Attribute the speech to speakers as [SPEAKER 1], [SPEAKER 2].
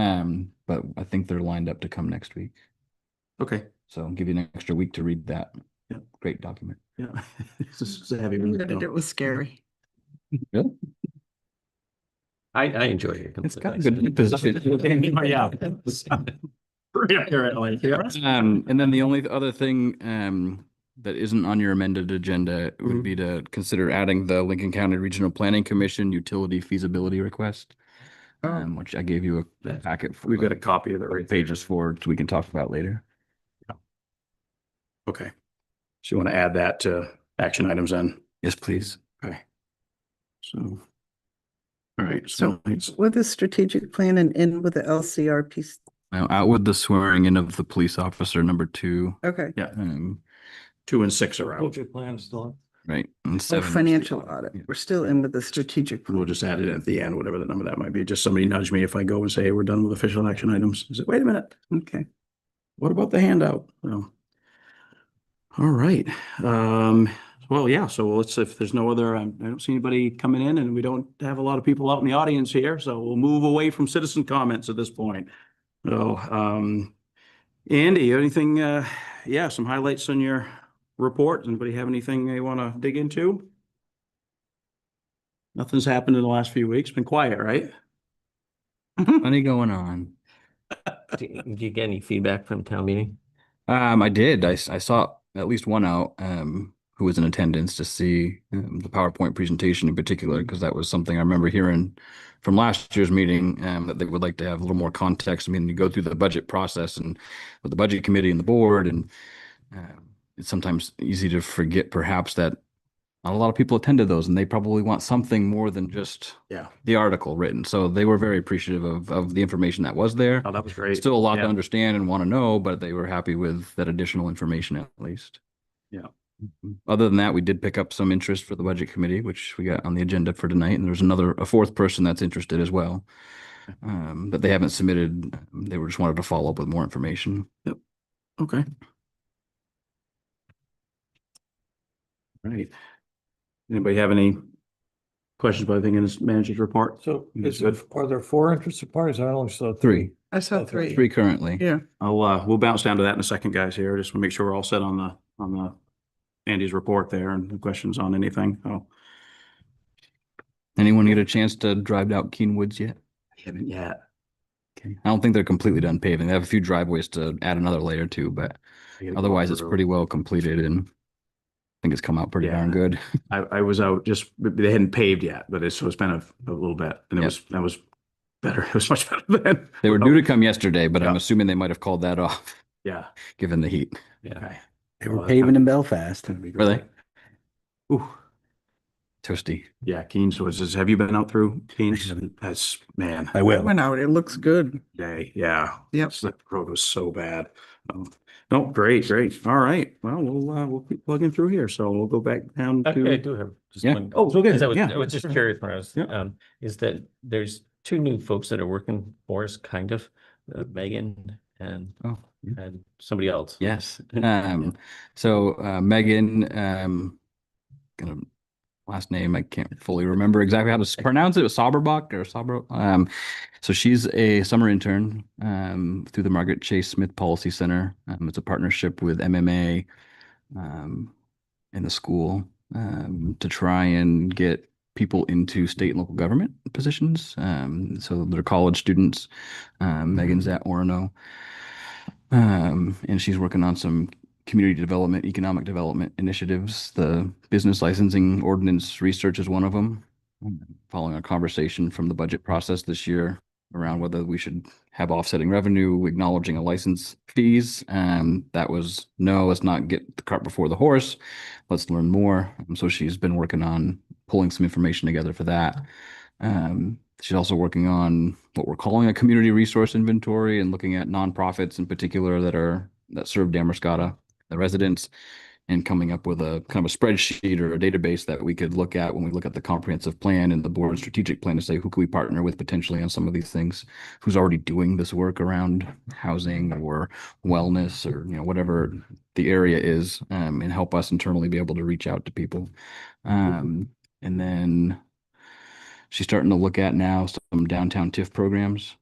[SPEAKER 1] Um, but I think they're lined up to come next week.
[SPEAKER 2] Okay,
[SPEAKER 1] So give you an extra week to read that.
[SPEAKER 2] Yeah.
[SPEAKER 1] Great document.
[SPEAKER 2] yeah. This is this is a heavy
[SPEAKER 3] I
[SPEAKER 2] read,
[SPEAKER 3] read it,
[SPEAKER 2] though.
[SPEAKER 3] It was scary.
[SPEAKER 4] I, I enjoy it.
[SPEAKER 1] It's got a good position.
[SPEAKER 2] Yeah. Pretty accurate, like, yeah.
[SPEAKER 1] Um, and then the only other thing, um, that isn't on your amended agenda would
[SPEAKER 2] Mhm.
[SPEAKER 1] be to consider adding the Lincoln County Regional Planning Commission Utility Feasibility Request.
[SPEAKER 2] Oh.
[SPEAKER 1] Um, which I gave you a
[SPEAKER 2] That's-
[SPEAKER 1] packet. for,
[SPEAKER 2] We've got a
[SPEAKER 1] like,
[SPEAKER 2] copy of it right there.
[SPEAKER 1] Pages for, so we can talk about later.
[SPEAKER 2] Okay. So you want to add that to action items then?
[SPEAKER 1] Yes, please.
[SPEAKER 2] So. All right, so
[SPEAKER 3] So-
[SPEAKER 2] it's,
[SPEAKER 3] With the strategic plan and in with the LCR piece,
[SPEAKER 1] Now out with the swearing in of the police officer number two,
[SPEAKER 3] okay,
[SPEAKER 1] um,
[SPEAKER 2] two and six are out.
[SPEAKER 4] plan still.
[SPEAKER 1] right, and
[SPEAKER 3] or
[SPEAKER 1] seven.
[SPEAKER 3] financial audit,
[SPEAKER 1] Yeah.
[SPEAKER 3] we're still in with the strategic. plan.
[SPEAKER 2] We'll just add it at the end, whatever the number that might be. Just somebody nudge me if I go and say, hey, we're done with official action items. Is it, wait a minute,
[SPEAKER 3] Okay,
[SPEAKER 2] what about the handout? So. All right, um, well, yeah, so let's, if there's no other, um, I don't see anybody coming in and we don't have a lot of people out in the audience here, so we'll move away from citizen comments at this point. So, um, Andy, you have anything, uh, yeah, some highlights on your report? Anybody have anything they want to dig into? Nothing's happened in the last few weeks. Been quiet, right?
[SPEAKER 1] Plenty going on.
[SPEAKER 4] Do you do you get any feedback from town meeting?
[SPEAKER 1] Um, I did. I, s- I saw at least one out um, who was in attendance to see um, the PowerPoint presentation in particular, because that was something I remember hearing from last year's meeting um, that they would like to have a little more context. I mean, you go through the budget process and with the budget committee and the board, and um it's sometimes easy to forget perhaps that not a lot of people attended those, and they probably want something more than just
[SPEAKER 2] Yeah.
[SPEAKER 1] the article written. So they were very appreciative of of the information that was there.
[SPEAKER 2] Oh, that was great.
[SPEAKER 1] Still a lot to
[SPEAKER 2] Yeah.
[SPEAKER 1] understand and want to know, but they were happy with that additional information at least.
[SPEAKER 2] Yeah.
[SPEAKER 1] Mhm. Other than that, we did pick up some interest for the budget committee, which we got on the agenda for tonight, and there's another, a fourth person that's interested as well. Um, but they haven't submitted, they were just wanted to follow up with more information.
[SPEAKER 2] Okay. Right. Anybody have any questions about anything in this manager's report?
[SPEAKER 5] So
[SPEAKER 2] That's
[SPEAKER 5] is it, are there four interested parties? I only saw three.
[SPEAKER 1] Three,
[SPEAKER 3] I saw
[SPEAKER 5] Oh, three.
[SPEAKER 1] three currently.
[SPEAKER 3] Yeah.
[SPEAKER 2] I'll, uh, we'll bounce down to that in a second, guys, here. Just want to make sure we're all set on the, on the Andy's report there and the questions on anything. Oh.
[SPEAKER 1] Anyone get a chance to drive out Keen Woods yet?
[SPEAKER 2] Haven't yet.
[SPEAKER 1] Okay. I don't think they're completely done paving. They have a few driveways to add another layer to, but otherwise it's pretty well completed and I think it's come out pretty darn
[SPEAKER 2] Yeah.
[SPEAKER 1] good.
[SPEAKER 2] I, I was out just, they hadn't paved yet, but it's, so it's been a, a little bit and it
[SPEAKER 1] Yeah.
[SPEAKER 2] was, that was better. It was much better than,
[SPEAKER 1] They were due to come yesterday, but I'm
[SPEAKER 2] Yeah.
[SPEAKER 1] assuming they might have called that off,
[SPEAKER 2] yeah.
[SPEAKER 1] given the heat.
[SPEAKER 4] Yeah.
[SPEAKER 2] Okay.
[SPEAKER 5] They
[SPEAKER 2] were paving
[SPEAKER 5] in Belfast.
[SPEAKER 1] Were they?
[SPEAKER 2] Ooh.
[SPEAKER 1] Toasty.
[SPEAKER 2] Yeah, Keen's was, is- have you been out through Keen's?
[SPEAKER 5] haven't.
[SPEAKER 2] That's, man,
[SPEAKER 5] I will.
[SPEAKER 3] went out, it looks good.
[SPEAKER 2] day, yeah.
[SPEAKER 3] Yep.
[SPEAKER 2] The road was so bad. Um, No, great, great. All right. Well, we'll, uh, we'll keep plugging through here. So we'll go back down
[SPEAKER 4] Okay, I
[SPEAKER 2] to.
[SPEAKER 4] do have just
[SPEAKER 1] Yeah.
[SPEAKER 4] one.
[SPEAKER 2] Oh, so good.
[SPEAKER 4] Because I was,
[SPEAKER 2] Yeah.
[SPEAKER 4] I was just curious when I was,
[SPEAKER 2] Yeah.
[SPEAKER 4] um, is that there's two new folks that are working for us, kind of, uh, Megan and,
[SPEAKER 1] Oh,
[SPEAKER 4] and somebody else.
[SPEAKER 1] yes.
[SPEAKER 4] Yeah.
[SPEAKER 1] Um, so uh, Megan, um, gonna last name I can't fully remember exactly how to s- pronounce it. Was Sauberbach or Sauber? Um, so she's a summer intern um, through the Margaret Chase Smith Policy Center. Um, it's a partnership with MMA um, and the school um, to try and get people into state and local government positions. Um, so they're college students. Um, Megan's at Orono, um, and she's working on some community development, economic development initiatives. The business licensing ordinance research is one of them. Following our conversation from the budget process this year around whether we should have offsetting revenue, acknowledging a license fees. Um, that was no, let's not get the cart before the horse. Let's learn more. Um, So she's been working on pulling some information together for that. Um, she's also working on what we're calling a community resource inventory and looking at nonprofits in particular that are that serve Damascata, the residents, and coming up with a kind of a spreadsheet or a database that we could look at when we look at the comprehensive plan and the board strategic plan to say who can we partner with potentially on some of these things, who's already doing this work around housing or wellness or you know whatever the area is, um, and help us internally be able to reach out to people. Um, and then she's starting to look at now some downtown TIF programs